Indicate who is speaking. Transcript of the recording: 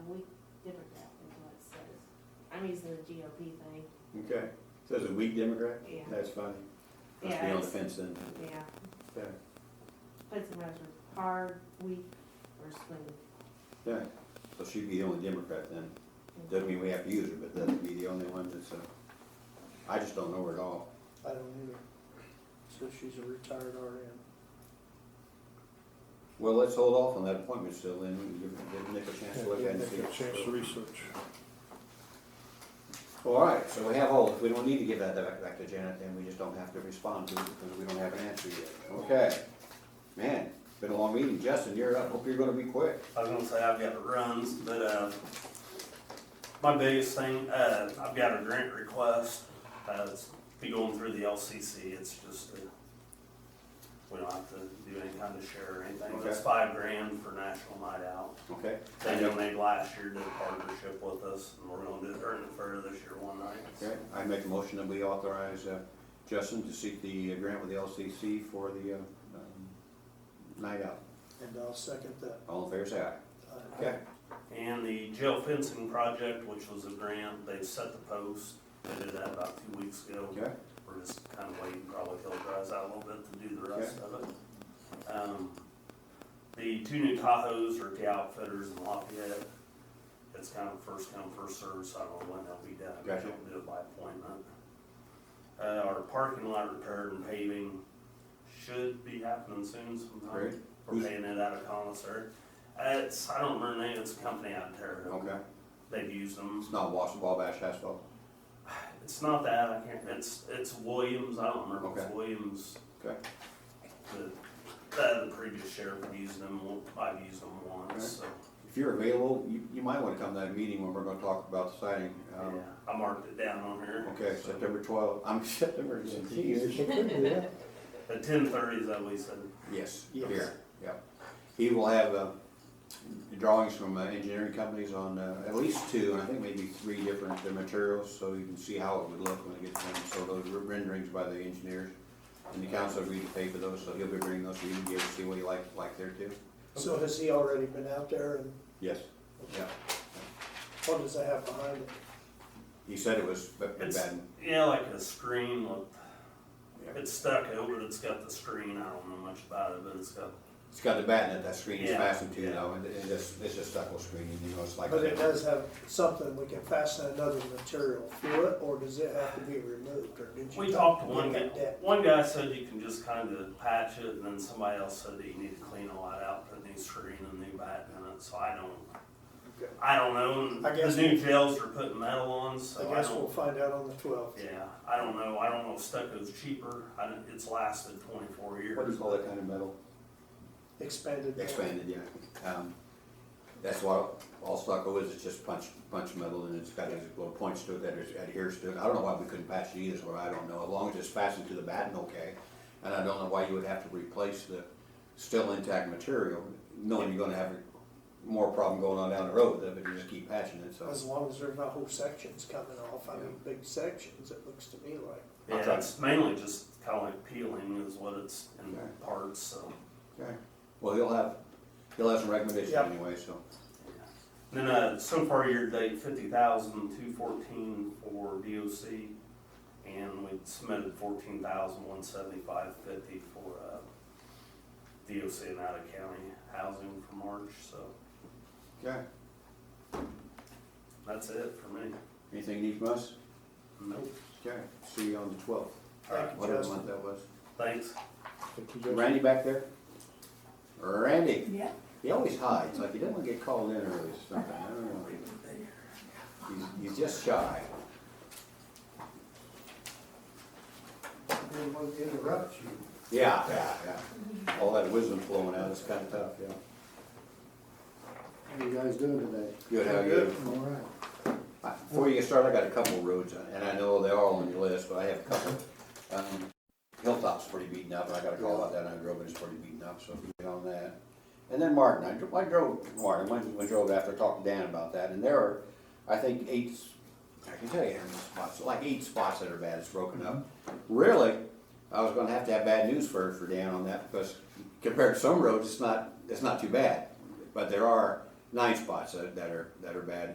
Speaker 1: reason the GOP thing,
Speaker 2: Okay, so it's a weak Democrat?
Speaker 1: Yeah.
Speaker 2: That's funny. Must be
Speaker 1: Yeah,
Speaker 2: on the
Speaker 1: it's-
Speaker 2: fence then.
Speaker 1: yeah.
Speaker 2: Yeah,
Speaker 1: But sometimes we're hard, weak, or smooth.
Speaker 2: yeah. So she'd be the only Democrat then. Doesn't mean we have to use her, but that'd be the only one that's, uh, I just don't know her at all.
Speaker 3: I don't either. So she's a retired RN.
Speaker 2: Well, let's hold off on that appointment still then, We can give- give Nick a chance to look at it and see.
Speaker 3: Give Nick a chance to research.
Speaker 2: All right, so we have all, we don't need to give that back back to Janet, then we just don't have to respond to it because we don't have an answer yet. Okay. Man, been a long meeting. Justin, you're up. Hope you're gonna be quick.
Speaker 4: I was gonna say I've got runs, but, uh, my biggest thing, uh, I've got a grant request, uh, it's be going through the LCC, it's just, uh, we don't have to do any kind of share or anything, but it's
Speaker 2: Okay.
Speaker 4: five grand for National Night Out.
Speaker 2: Okay?
Speaker 4: They donated last year, did a partnership with us, and we're gonna do it during the fair this year one night.
Speaker 2: Okay, I make a motion that we authorize uh, Justin to seek the uh, grant with the LCC for the uh, um, night out.
Speaker 3: And I'll second that.
Speaker 2: All in favor, say aye.
Speaker 3: Uh,
Speaker 2: Okay.
Speaker 4: And the jail fencing project, which was a grant, they set the post, they did that about two weeks ago.
Speaker 2: Okay,
Speaker 4: We're just kind of waiting, probably till it dries out a little bit to do the rest of it. Um, The two new Tahoes are at the outfitters in Lafayette. It's kind of first come, first served, so I don't know when they'll be done.
Speaker 2: Gotcha.
Speaker 4: We'll Do it by appointment. Uh, our parking lot repair and paving should be happening soon
Speaker 2: Great.
Speaker 4: sometime. We're
Speaker 2: Who's-
Speaker 4: paying it out of concert. Uh, it's, I don't remember the name, it's a company out there.
Speaker 2: okay.
Speaker 4: They've used them.
Speaker 2: It's not Wash, Wabash asphalt.
Speaker 4: It's not that, I can't, it's, it's Williams, I don't remember, if it's
Speaker 2: Okay.
Speaker 4: Williams.
Speaker 2: Okay.
Speaker 4: The, uh, the the previous sheriff had used them, one- I've used them once, so,
Speaker 2: If you're available, you, you might want to come to that meeting when we're going to talk about the siding.
Speaker 4: yeah,
Speaker 2: Um,
Speaker 4: I marked it down on here.
Speaker 2: Okay,
Speaker 4: So,
Speaker 2: September twelfth, I'm September
Speaker 3: Geez,
Speaker 2: seventeenth.
Speaker 3: so quickly, yeah.
Speaker 4: At ten thirty is that we said,
Speaker 2: Yes,
Speaker 3: Yes.
Speaker 2: here, yep. He will have uh, drawings from uh, engineering companies on uh, at least two, and I think maybe three different uh, materials, so you can see how it would look when it gets done. So those are renderings by the engineers, and the council agreed to pay for those, so he'll be bringing those, so you can be able to see what he likes, like there too.
Speaker 3: So has he already been out there and
Speaker 2: Yes. Yeah,
Speaker 3: what does that have behind it?
Speaker 2: he said it was b- bad.
Speaker 4: it's, yeah, like a screen with,
Speaker 2: Yeah.
Speaker 4: it's stuck over, it's got the screen, I don't know much about it, but it's got,
Speaker 2: It's got the bat in it, that screen is
Speaker 4: Yeah.
Speaker 2: fastened to,
Speaker 4: Yeah.
Speaker 2: though, and it- it's just, it's just stucco screening, you know, it's like.
Speaker 3: But it does have something, we can fasten another material through it, or does it have to be removed, or did you?
Speaker 4: we
Speaker 3: talk
Speaker 4: talked to
Speaker 3: him
Speaker 4: one guy,
Speaker 3: about that?
Speaker 4: one guy said you can just kind of patch it, and then somebody else said that you need to clean a lot out, put new screen and new bat in it, so I don't,
Speaker 3: Okay.
Speaker 4: I don't know.
Speaker 3: I guess
Speaker 4: the new jails are putting metal on, so
Speaker 3: I
Speaker 4: I,
Speaker 3: guess we'll
Speaker 4: don't.
Speaker 3: find out on the twelfth.
Speaker 4: yeah, I don't know. I don't know if stucco's cheaper. I don't, it's lasted 24 years.
Speaker 2: What do you call that kind of metal?
Speaker 3: Expanded.
Speaker 2: Expanded, yeah. Um, That's why all stucco is, it's just punch, punch metal and it's got these little points to it that is- adheres to it. I don't know why we couldn't patch it either, is what I don't know, as long as it's fastened to the batten, okay. And I don't know why you would have to replace the still intact material, knowing you're gonna have more problem going on down the road with it, but you just keep patching it, so.
Speaker 3: As long as there's not whole sections coming off, I mean, big sections, it looks to me like.
Speaker 4: Yeah,
Speaker 2: Okay.
Speaker 4: it's mainly just kind of like peeling is what it's in
Speaker 2: Okay.
Speaker 4: parts. So
Speaker 2: Okay. Well, he'll have, he'll have some recommendations
Speaker 3: Yep.
Speaker 2: anyway, so.
Speaker 4: yeah. And then uh, so far year to date 50,214 for DOC, and we submitted 14,175.50 for uh, DOC and out of county housing for March. So
Speaker 2: Okay.
Speaker 4: that's it for me.
Speaker 2: Anything you need from us?
Speaker 4: Nope.
Speaker 2: Okay. See you on the twelfth,
Speaker 3: Thank you,
Speaker 2: whatever
Speaker 3: Justin.
Speaker 2: month that was.
Speaker 4: Thanks.
Speaker 2: Randy back there? Randy,
Speaker 5: Yeah.
Speaker 2: he always hides, like he doesn't want to get called in early or something, I don't know. He's, he's just shy.
Speaker 3: Didn't want to interrupt you.
Speaker 2: Yeah, yeah, yeah. All that wisdom flowing out, it's kind of tough, yeah.
Speaker 6: How you guys doing today?
Speaker 2: Good, how are you?
Speaker 3: Good.
Speaker 6: All right.
Speaker 2: I- Before you get started, I got a couple of roads, and I know they're all on your list, but I have a couple. Um, Hilltop's pretty beaten up, and I got a call about that, and I drove it, it's pretty beaten up, so if you get on that. And then Martin, I dro- I drove, Martin, I went- went drove after, talked to Dan about that, and there are, I think, eight, s- I can tell you how many spots, like eight spots that are bad, it's broken up. Really, I was gonna have to have bad news for, for Dan on that, because compared to some roads, it's not, it's not too bad. But there are nine spots that that are, that are bad,